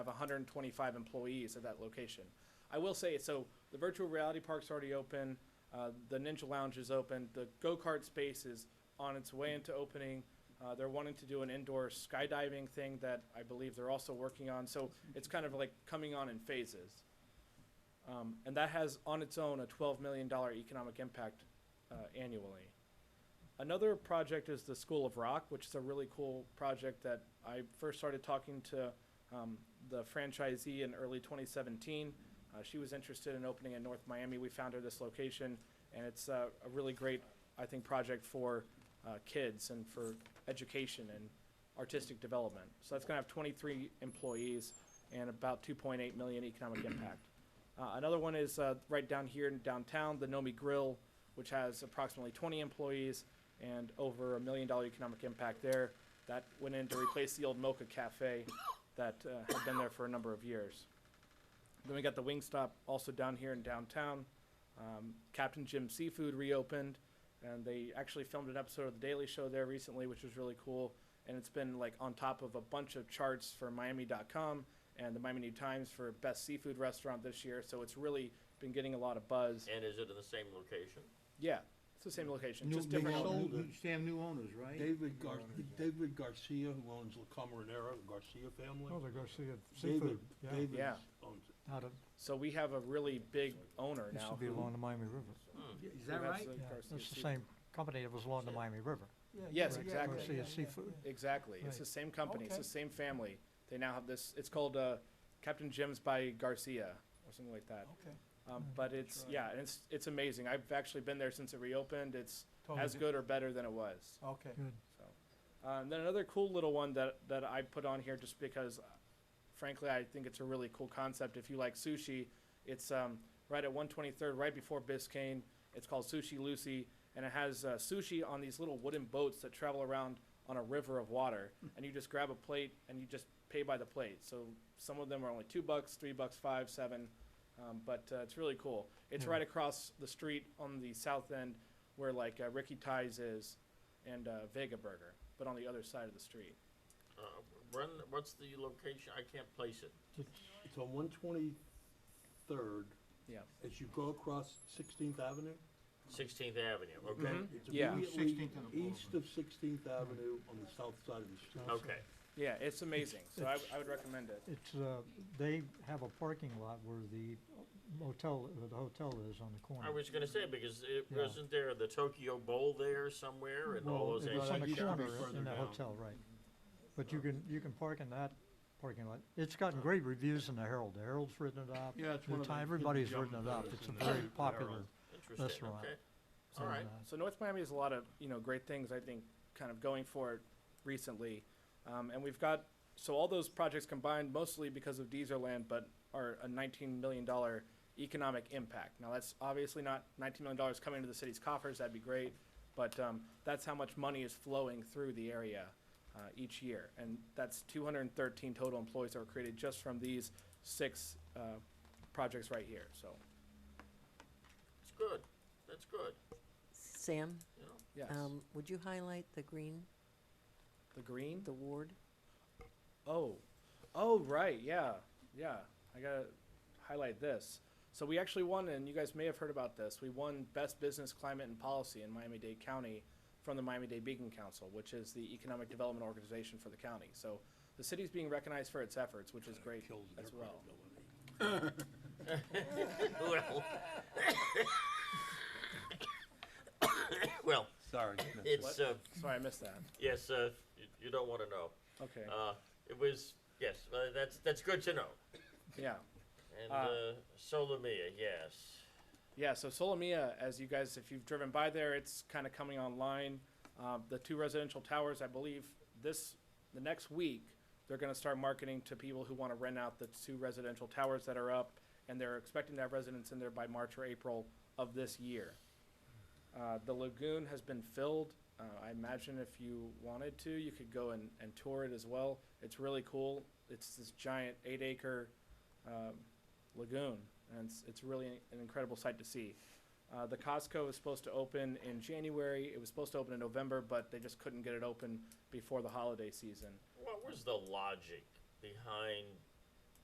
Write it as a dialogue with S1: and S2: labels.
S1: 125 employees at that location. I will say, so the virtual reality park's already open, uh, the Ninja Lounge is open, the go-kart space is on its way into opening. Uh, they're wanting to do an indoor skydiving thing that I believe they're also working on, so it's kind of like coming on in phases. Um, and that has on its own a $12 million economic impact uh, annually. Another project is the School of Rock, which is a really cool project that I first started talking to um, the franchisee in early 2017. Uh, she was interested in opening in North Miami. We found her this location, and it's uh, a really great, I think, project for uh, kids and for education and artistic development. So that's going to have 23 employees and about 2.8 million economic impact. Uh, another one is uh, right down here in downtown, the Nomi Grill, which has approximately 20 employees and over a million dollar economic impact there. That went in to replace the old Mocha Cafe that uh, had been there for a number of years. Then we got the Wingstop also down here in downtown. Um, Captain Jim Seafood reopened, and they actually filmed an episode of The Daily Show there recently, which was really cool. And it's been like on top of a bunch of charts for Miami.com and the Miami New Times for best seafood restaurant this year. So it's really been getting a lot of buzz.
S2: And is it in the same location?
S1: Yeah, it's the same location,
S3: New-
S1: just
S3: new
S1: different.
S3: owner.
S4: Sold
S3: New-
S4: it.
S3: Sam, new owners, right?
S4: David Gar- David Garcia, who owns La Camarinera, the Garcia
S5: Oh,
S4: family.
S5: the Garcia
S4: David,
S5: Seafood, yeah.
S4: David
S1: Yeah.
S4: owns it.
S5: Out of,
S1: So we have a really big owner
S5: this
S1: now.
S5: should be
S1: who-
S5: along the Miami River.
S3: Is
S1: who
S3: that
S1: has
S3: right?
S1: the
S5: Yeah,
S1: Garcia
S5: It's the
S1: Seafood.
S5: same company that was along the Miami River.
S1: Yes,
S5: right?
S1: exactly.
S5: Garcia Seafood.
S1: Exactly. It's
S5: Right.
S1: the same company. It's
S3: Okay.
S1: the same family. They now have this. It's called uh, Captain Jim's by Garcia or something like that.
S3: Okay.
S1: Um, but it's
S3: Try.
S1: yeah, and it's it's amazing. I've actually been there since it reopened. It's
S3: Totally
S1: as
S3: di-
S1: good or better than it was.
S3: Okay.
S5: Good.
S1: So, uh, and then another cool little one that that I put on here just because, uh, frankly, I think it's a really cool concept. If you like sushi, it's um, right at 123rd, right before Biscayne. It's called Sushi Lucy, and it has uh, sushi on these little wooden boats that travel around on a river of water. and you just grab a plate and you just pay by the plate. So some of them are only two bucks, three bucks, five, seven. Um, but uh, it's really cool. It's
S5: Yeah.
S1: right across the street on the south end, where like uh, Ricky Ties is, and uh, Vega Burger, but on the other side of the street.
S2: Uh, when, what's the location? I can't place it.
S4: It's on one twenty-third,
S1: Yeah.
S4: as you go across Sixteenth Avenue.
S2: Sixteenth Avenue, okay?
S1: Mhm.
S5: Mm-hmm.
S4: It's
S1: Yeah.
S4: immediately
S3: 16th and the
S4: east of Sixteenth Avenue on the south side of the street.
S2: Okay,
S1: Yeah, it's amazing. So I, I would recommend it.
S5: It's, uh, they have a parking lot where the motel, uh, the hotel is on the corner.
S2: I was gonna say, because it
S5: Yeah.
S2: wasn't there the Tokyo Bowl there somewhere and all
S5: Well,
S2: those
S5: it was
S2: Asian
S5: on the
S4: Asian
S2: shops?
S4: shops.
S5: corner
S4: Further
S5: in the
S4: down.
S5: hotel, right. But you can, you can park in that parking lot. It's gotten great reviews in the Herald. The Herald's written it up.
S4: Yeah, it's
S5: The
S4: one of
S5: Time-
S4: the-
S5: Everybody's written it up.
S4: Yeah.
S5: It's a very popular.
S2: Interesting,
S5: restaurant.
S2: okay. All right,
S5: and, uh,
S1: So North Miami has a lot of you know great things. I think kind of going for it recently, um, and we've got so all those projects combined mostly because of Deezerland, but are a 19 million dollar economic impact. Now that's obviously not 19 million dollars coming into the city's coffers. That'd be great, but um, that's how much money is flowing through the area uh, each year, and that's 213 total employees that were created just from these six uh, projects right here. So
S2: it's good, that's good,
S6: Sam,
S2: you know.
S1: yes,
S6: um, would you highlight the green,
S1: the green.
S6: the ward?
S1: Oh, oh right, yeah, yeah. I gotta highlight this. So we actually won, and you guys may have heard about this. We won Best Business Climate and Policy in Miami-Dade County from the Miami-Dade Beacon Council, which is the economic development organization for the county. So the city's being recognized for its efforts, which is great
S4: Kills their
S1: as well.
S4: credibility.
S2: Well, well,
S4: Sorry.
S2: it's, uh,
S1: Sorry, I missed that.
S2: yes, uh, you- you don't wanna know.
S1: Okay,
S2: Uh, it was, yes, uh, that's, that's good to know.
S1: yeah.
S2: And,
S1: Uh,
S2: uh, Solomia, yes.
S1: Yeah, so Solomia, as you guys, if you've driven by there, it's kind of coming online. Um, the two residential towers, I believe, this the next week, they're going to start marketing to people who want to rent out the two residential towers that are up, and they're expecting to have residents in there by March or April of this year. Uh, the lagoon has been filled. Uh, I imagine if you wanted to, you could go and, and tour it as well. It's really cool. It's this giant eight acre um, lagoon, and it's, it's really an incredible sight to see. Uh, the Costco is supposed to open in January. It was supposed to open in November, but they just couldn't get it open before the holiday season.
S2: What was the logic behind